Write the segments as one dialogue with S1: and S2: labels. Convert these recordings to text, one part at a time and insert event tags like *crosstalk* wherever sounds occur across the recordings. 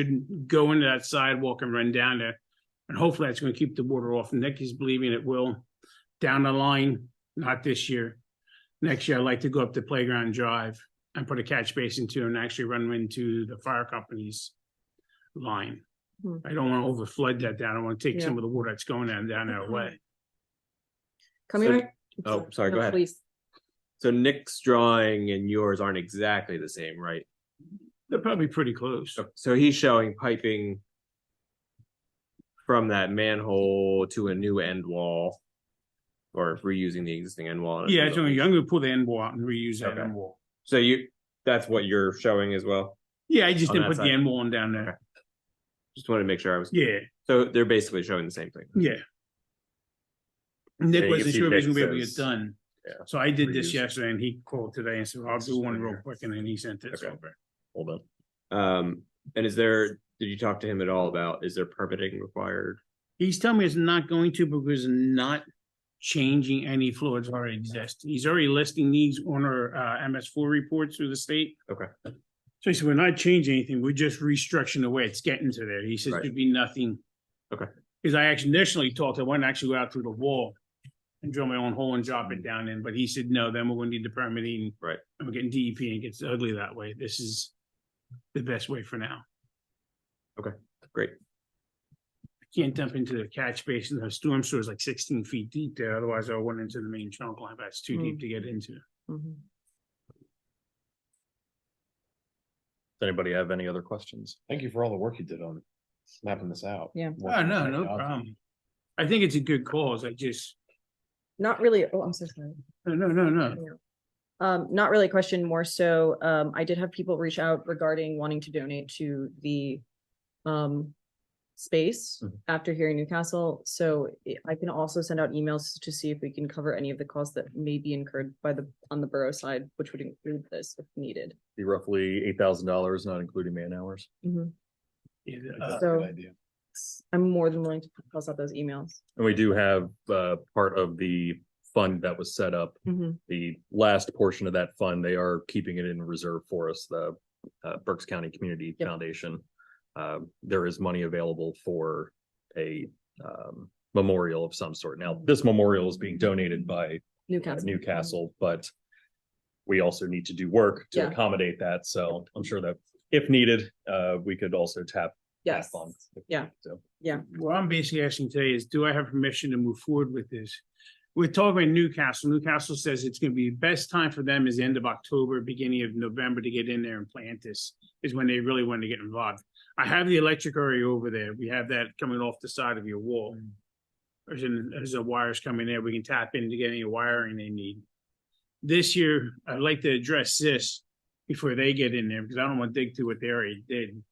S1: shouldn't go into that sidewalk and run down there. And hopefully that's gonna keep the water off. Nick is believing it will down the line, not this year. Next year, I'd like to go up to Playground Drive and put a catch basin to and actually run into the fire company's line.
S2: Hmm.
S1: I don't wanna over flood that down. I wanna take
S2: Yeah.
S1: some of the water that's going down, down that way.
S2: Coming
S3: So-
S2: right.
S3: oh, sorry, go
S2: No,
S3: ahead.
S2: Please,
S3: So Nick's drawing and yours aren't exactly the same, right?
S1: They're probably pretty close.
S3: So- So he's showing piping from that manhole to a new end wall or reusing the existing end wall. at a
S1: Yeah,
S3: new
S1: it's only-
S3: location.
S1: I'm gonna pull the end wall out and reuse that
S3: Okay.
S1: end wall.
S3: So you, that's what you're showing as well?
S1: Yeah, I just
S3: On
S1: didn't
S3: that
S1: put the
S3: side.
S1: end wall on down there.
S3: Just wanted to make sure I was,
S1: Yeah.
S3: so they're basically showing the same thing.
S1: Yeah.
S3: Yeah,
S1: Nick
S3: you
S1: wasn't
S3: see
S1: sure if he was
S3: Nick
S1: gonna be able to
S3: says-
S1: get done.
S3: Yeah.
S1: So I did this
S3: Reuse.
S1: yesterday and he called today and said, I'll
S3: This
S1: do
S3: is
S1: one
S3: right
S1: real
S3: here.
S1: quick and then he sent it
S3: Okay.
S1: over.
S3: Hold on. Um, and is there, did you talk to him at all about, is there permitting required?
S1: He's telling me it's not going to because it's not changing any floors already exist. He's already listing these on our uh MS four reports through the state.
S3: Okay.
S1: So he said, we're not changing anything, we're just restructuring the way it's getting to there. He says
S3: Right.
S1: there'd be nothing.
S3: Okay.
S1: Because I actually initially talked, I wanted to actually go out through the wall and drill my own hole and drop it down in, but he said, no, then we're gonna need the permitting.
S3: Right.
S1: And we're getting DEP and it gets ugly that way. This is the best way for now.
S3: Great.
S1: Can't dump into the catch basin. The storm sewer is like sixteen feet deep there, otherwise I went into the main trunk line, but it's too deep to get into.
S2: Mhm.
S4: Does anybody have any other questions? Thank you for all the work you did on mapping this out.
S2: Yeah.
S1: Oh, no, no problem. I think it's a good cause. I just,
S2: not really, oh, I'm so sorry.
S1: no, no, no,
S3: Uh.
S1: no.
S2: Um, not really a question, more so, um, I did have people reach out regarding wanting to donate to the um space
S3: Mhm.
S2: after here in Newcastle, so i- I can also send out emails to see if we can cover any of the costs that may be incurred by the, on the borough side, which would include this if needed.
S4: Be roughly eight thousand dollars, not including man hours.
S2: Mhm.
S1: Yeah,
S4: That's
S1: uh,
S4: a good
S2: So-
S4: idea.
S2: I'm more than willing to pass out those emails.
S4: And we do have, uh, part of the fund that was set up, the last portion of that fund, they are keeping it in reserve for us, the, uh, Berks County Community
S2: Yep.
S4: Foundation. Um there is money available for a, um, memorial of some sort. Now, this memorial is being donated by at
S2: Newcastle.
S4: Newcastle, but we also need to do work to
S2: Yeah.
S4: accommodate that. So I'm sure that if needed, uh, we could also tap. that
S2: Yes,
S4: fund if we
S2: Yeah.
S4: need to.
S1: What I'm basically asking today is, do I have permission to move forward with this? We're talking about Newcastle. Newcastle says it's gonna be, best time for them is the end of October, beginning of November to get in there and plant this, is when they really want to get involved. I have the electric area over there. We have that coming off the side of your wall. There's, an- there's a wires coming there. We can tap in to get any wiring they need. This year, I'd like to address this before they get in there, because I don't want to dig through what they already did.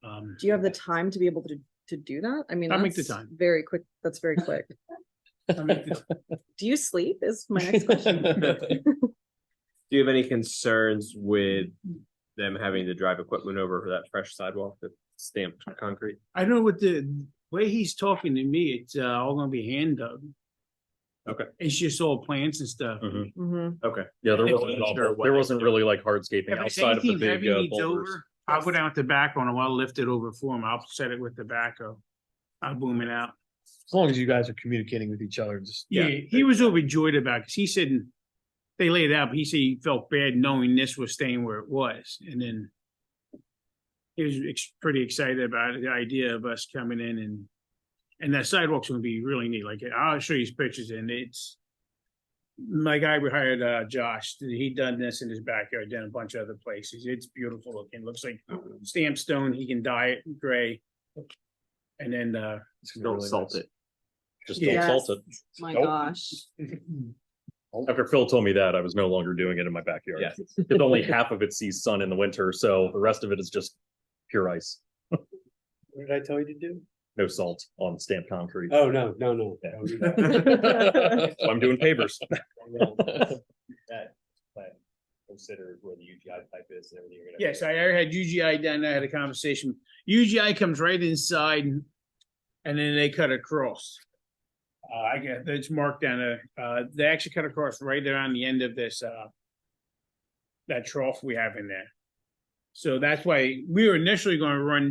S1: Um,
S2: Do you have the time to be able to, to do that? I mean,
S1: I'll make the
S2: that's
S1: time.
S2: very quick, that's very quick.
S1: I mean, it's-
S2: Do you sleep is my
S1: *laughs*
S2: next question.
S3: Do you have any concerns with them having to drive equipment over for that fresh sidewalk that's stamped concrete?
S1: I know what the way he's talking to me, it's uh, all gonna be hand dug.
S3: Okay.
S1: It's just all plants and stuff.
S4: Mhm.
S2: Mhm.
S3: Okay.
S4: Yeah, there
S1: If
S4: wasn't,
S1: it's
S4: all-
S3: their
S4: there
S3: way.
S4: wasn't really like hardscaping
S1: If it's
S4: outside of the
S1: anything
S4: big
S1: heavy
S4: uh,
S1: needs
S4: boulders.
S1: over, I'll go down with tobacco and I'll lift it over for him. I'll set it with tobacco. I'll boom it out.
S5: As long as you guys are communicating with each other, just.
S1: Yeah, he was overjoyed about, it, cause he said, they laid it out, but he said he felt bad knowing this was staying where it was, and then he was ex- pretty excited about the idea of us coming in and, and that sidewalk's gonna be really neat, like, I'll show you his pictures, and it's my guy we hired, uh, Josh, he done this in his backyard, done a bunch of other places, it's beautiful looking, looks like stamped stone, he can dye it gray. And then, uh,
S4: It's gonna be
S3: Don't
S4: really
S3: salt
S4: nice.
S3: it.
S4: Just
S1: Yeah.
S4: don't salt it.
S2: Yes. My
S4: Nope.
S2: gosh.
S4: After Phil told me that, I was no longer doing it in my backyard.
S3: Yeah.
S2: *laughs*
S4: Because only half of it sees sun in the winter, so the rest of it is just pure ice,
S5: What did I tell you to do?
S4: no salt on stamped concrete.
S5: Oh, no, no, no.
S3: *laughs*
S4: Yeah.
S5: That was- that
S4: So I'm
S5: *laughs*
S4: doing pavers.
S5: plan Consider where the UGI pipe is and everything. you're gonna-
S1: Yes, I already had UGI down there, I had a conversation. UGI comes right inside and then they cut across. Uh, I get, it's marked down there. Uh, they actually cut across right around the end of this, uh, that trough we have in there. So that's why we were initially going to run